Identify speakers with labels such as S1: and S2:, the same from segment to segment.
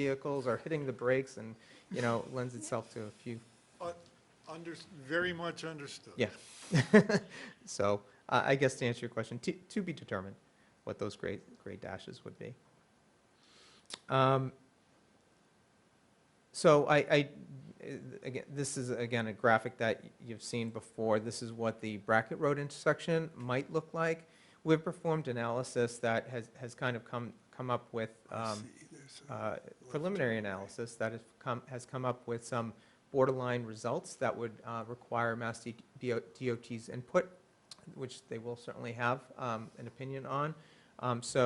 S1: vehicles or hitting the brakes and, you know, lends itself to a few,
S2: Un- Under, very much understood.
S1: yeah. So I, I guess to answer your question, to, to be determined what those grade, grade dashes would be. Um, So I, I, eh, again, this is again a graphic that you've seen before. This is what the Brackett Road intersection might look like. We've performed analysis that has, has kind of come, come up with, um, uh, preliminary analysis that has come, has come up with some borderline results that would uh, require Mass D- DO- DOT's input, which they will certainly have um, an opinion on. Um, So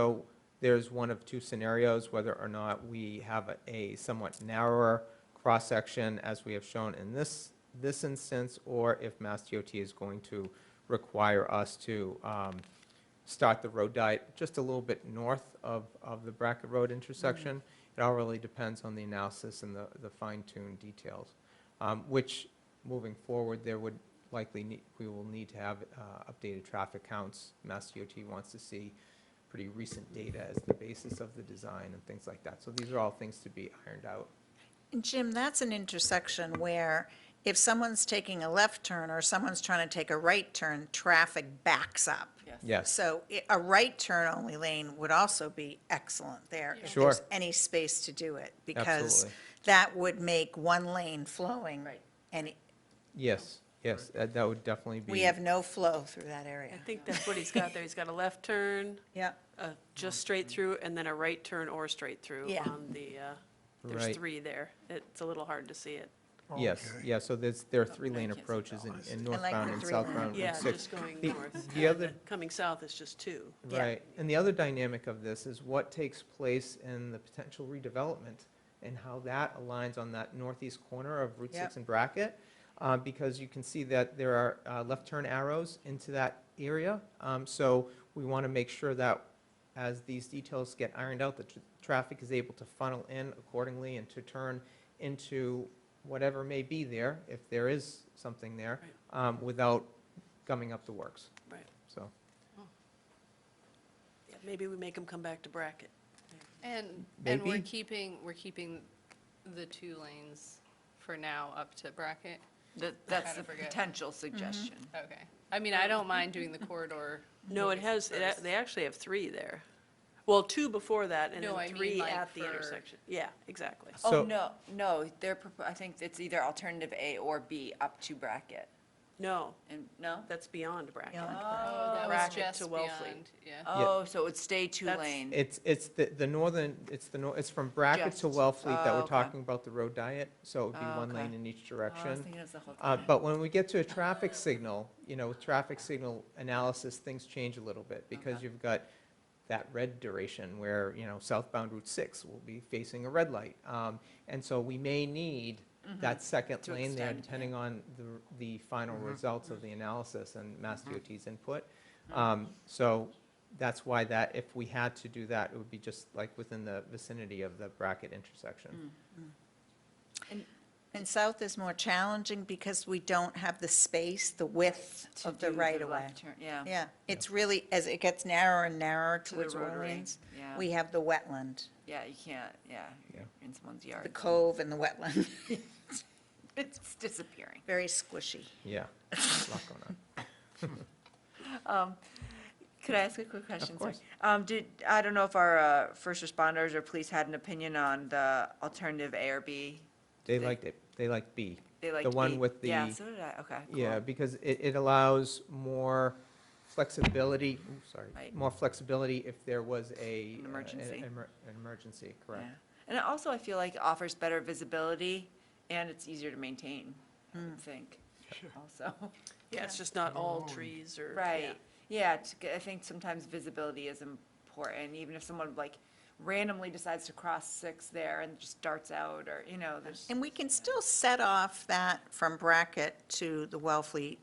S1: there's one of two scenarios, whether or not we have a- a somewhat narrower cross-section as we have shown in this, this instance, or if Mass DOT is going to require us to um, start the road diet just a little bit north of, of the Brackett Road intersection. It all really depends on the analysis and the, the fine-tuned details, um, which, moving forward, there would likely, need- we will need to have uh, updated traffic counts. Mass DOT wants to see pretty recent data as the basis of the design and things like that. So these are all things to be ironed out.
S3: Jim, that's an intersection where if someone's taking a left turn or someone's trying to take a right turn, traffic backs up.
S1: Yes,
S3: So i- a right turn only lane would also be excellent there. if
S1: Sure.
S3: there's Any space to do it, because
S1: Absolutely.
S3: that would make one lane flowing.
S4: Right.
S3: And
S1: yes, yes, that that would definitely be.
S3: we have no flow through that
S4: I
S3: area.
S4: think that's what he's got there. He's got a left turn,
S3: Yeah,
S4: uh, just straight through, and then a right turn or straight through
S3: Yeah.
S4: on the, uh,
S1: Right.
S4: there's three there. It's a little hard to see it.
S1: Yes,
S2: Okay.
S1: yeah, so there's, there are
S3: Oh,
S1: three-lane
S4: I can't see
S1: approaches in- in
S3: I like
S1: northbound
S3: the
S1: and
S3: three-lane.
S1: southbound
S4: Yeah,
S1: Route 6.
S4: just going
S1: The-
S4: north.
S1: the other-
S4: Coming south is just two.
S3: Yeah.
S1: Right, and the other dynamic of this is what takes place in the potential redevelopment and how that aligns on that northeast corner of Route
S3: Yep.
S1: 6 and Brackett, uh, because you can see that there are uh, left turn arrows into that area. Um, So we want to make sure that as these details get ironed out, the tr- traffic is able to funnel in accordingly and to turn into whatever may be there, if there is something there, um, without gumming up the works,
S4: Right.
S1: so.
S4: Yeah, Maybe we make him come back to Brackett.
S5: And, and we're
S1: Maybe.
S5: keeping, we're keeping the two lanes for now up to bracket?
S6: That, that's
S5: kinda
S6: the
S5: forget.
S6: potential suggestion.
S5: Okay. I mean, I don't mind doing the corridor.
S4: No, it has, it a- they actually have three there. Well, two before that, and
S5: No, I
S4: then
S5: mean,
S4: three
S5: like,
S4: at the
S5: for-
S4: intersection. Yeah, exactly.
S1: So-
S6: Oh, no, no, they're, propo- I think it's either alternative A or B up to bracket.
S4: No,
S6: And, no?
S4: that's beyond Brackett.
S3: Beyond.
S5: Oh, that was
S4: Bracket
S5: just
S4: to Wellfleet.
S5: beyond, yeah.
S6: Oh, so it's stay two
S4: That's-
S6: lane.
S1: It's, it's the, the northern, it's the, nor- it's from Brackett to
S6: Just-
S1: Wellfleet that
S6: oh,
S1: we're
S6: okay.
S1: talking about the road diet, so it would be
S6: Oh,
S1: one
S6: okay.
S1: lane in each
S6: Oh, I was
S1: direction.
S6: thinking it was the whole
S1: Uh,
S6: thing.
S1: But when we get to a traffic signal, you know, with traffic signal analysis, things change a little bit, because
S6: Okay.
S1: you've got that red duration where, you know, southbound Route 6 will be facing a red light. Um, And so we may need that second
S6: Mm-hmm. To
S1: lane there,
S6: extend, yeah. Mm-hmm.
S1: depending on the, the final results of the analysis and Mass DOT's input.
S6: Mm-hmm.
S1: Um, So that's why that, if we had to do that, it would be just like within the vicinity of the bracket intersection.
S6: Mm.
S3: and south is more challenging because we don't have the space, the width
S6: To
S3: of the
S6: do
S3: right of way.
S6: left turn, Yeah.
S3: Yeah, it's really, as it gets narrower and narrower
S6: To the
S3: towards
S6: rotary.
S3: Orleans,
S6: Yeah,
S3: we have the wetland,
S6: yeah, you can't, yeah,
S1: Yeah.
S6: in someone's
S3: the
S6: yard.
S3: cove and the wetland,
S6: It's disappearing.
S3: very squishy.
S1: Yeah. A lot going on.
S6: Um, Could I ask a quick question? Sorry.
S1: course.
S6: Um, did, I don't know if our, uh, first responders or police had an opinion on the alternative A or B.
S1: They
S6: They-
S1: liked it, they liked B.
S6: They liked
S1: The one
S6: B.
S1: with
S6: Yeah,
S1: the-
S6: so did I, okay. cool.
S1: Yeah, because it, it allows more flexibility, ooh, sorry,
S6: Right.
S1: more flexibility if there was a.
S6: An
S1: uh,
S6: emergency.
S1: An emer- an emergency, correct.
S6: Yeah. And it also, I feel like offers better visibility and it's easier to maintain, I would think, also.
S4: Yeah, it's just not all trees or. yeah.
S6: Right, yeah, it's g- I think sometimes visibility is important, even if someone like randomly decides to cross six there and just darts out or, you know, there's.
S3: And we can still set off that from Brackett to the Wellfleet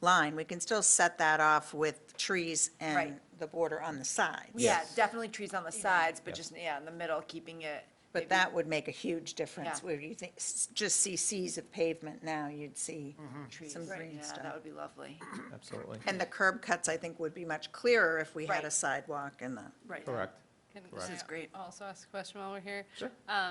S3: line. We can still set that off with trees and
S6: Right.
S3: the border on the sides.
S6: Yeah,
S1: Yes.
S6: definitely trees on the sides,
S1: Yes.
S6: but just, yeah, in the middle, keeping it. maybe-
S3: But that would make a huge difference,
S6: Yeah.
S3: where you think, s- just see seas of pavement now, you'd see some
S6: Right,
S3: green
S6: yeah,
S3: stuff.
S6: That would be lovely.
S1: Absolutely,
S3: And the curb cuts, I think, would be much clearer if we had a
S6: Right.
S3: sidewalk and the.
S4: Right.
S1: correct.
S5: Can
S1: This
S5: I
S6: is great.
S5: Also ask a question while we're here.
S1: Sure.
S5: Um,